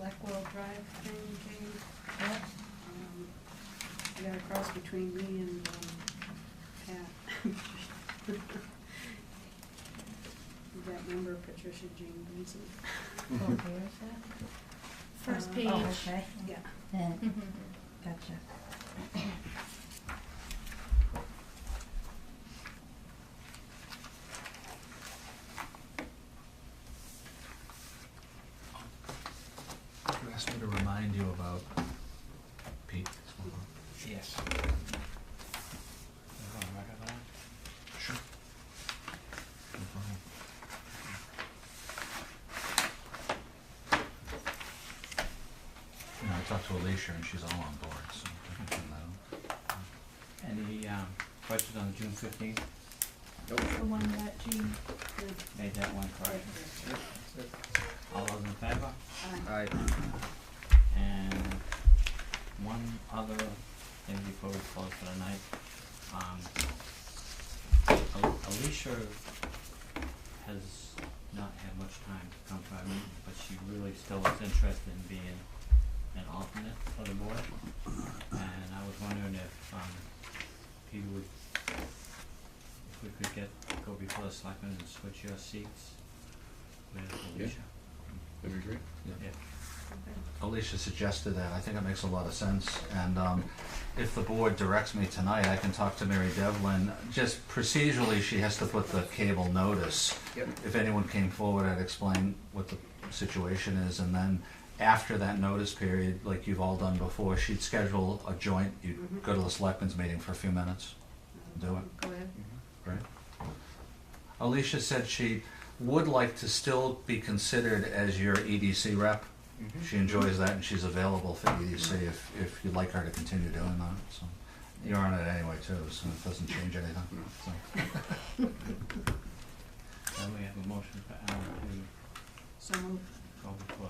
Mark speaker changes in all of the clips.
Speaker 1: Drive thing came,
Speaker 2: Yeah.
Speaker 1: um, I got a cross between me and, um, Pat. That member Patricia Jean Benson.
Speaker 2: Oh, where's that?
Speaker 3: First
Speaker 1: Uh,
Speaker 3: page.
Speaker 2: Oh, okay. Mm-hmm.
Speaker 1: Yeah.
Speaker 2: Then,
Speaker 3: Mhm.
Speaker 2: gotcha.
Speaker 4: You asked me to remind you about Pete.
Speaker 5: Yes.
Speaker 4: Sure. No problem. You know, I talked to Alicia and she's all on board, so I can uh, send that
Speaker 5: Any um, questions on June fifteenth?
Speaker 3: The one that Jean,
Speaker 5: Made that one correction. All those in favor?
Speaker 1: Uh,
Speaker 6: Aye.
Speaker 5: And one other thing before we close for the night. Um, Al- Alicia has not had much time to come to our meeting, but she really still is interested in being an alternate for the board. And I was wondering if, um, Peter would, if we could get, go before the selectmen and switch your seats with
Speaker 6: Yeah.
Speaker 5: Alicia.
Speaker 6: That'd be great.
Speaker 5: Yeah.
Speaker 1: okay.
Speaker 4: out. Alicia suggested that, I think it makes a lot of sense, and, um, if the board directs me tonight, I can talk to Mary Devlin. Just procedurally, she has to put the cable notice.
Speaker 6: Yep.
Speaker 4: If anyone came forward, I'd explain what the situation is, and then after that notice period, like you've all done before, she'd schedule a joint, you'd go to the selectmen's meeting for a few minutes, Do it.
Speaker 1: Um, Go ahead.
Speaker 6: Mm-hmm.
Speaker 4: right? Alicia said she would like to still be considered as your EDC rep.
Speaker 6: Mm-hmm.
Speaker 4: She enjoys that, and she's available for EDC if, if you'd like her to continue doing that, so. You're on it anyway too, so it doesn't change anything, so.
Speaker 5: Then we have a motion for Alan to
Speaker 1: So moved.
Speaker 5: go before,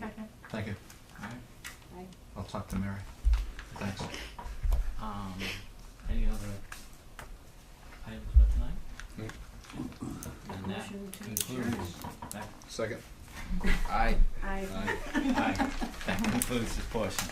Speaker 3: second.
Speaker 4: Thank you.
Speaker 5: alright?
Speaker 1: Aye.
Speaker 4: I'll talk to Mary. Thanks.
Speaker 5: Um, any other items for tonight? And that
Speaker 1: Motion to
Speaker 5: concludes, that,
Speaker 6: Second. Aye.
Speaker 1: Aye.
Speaker 6: Aye.
Speaker 5: aye, that concludes this portion.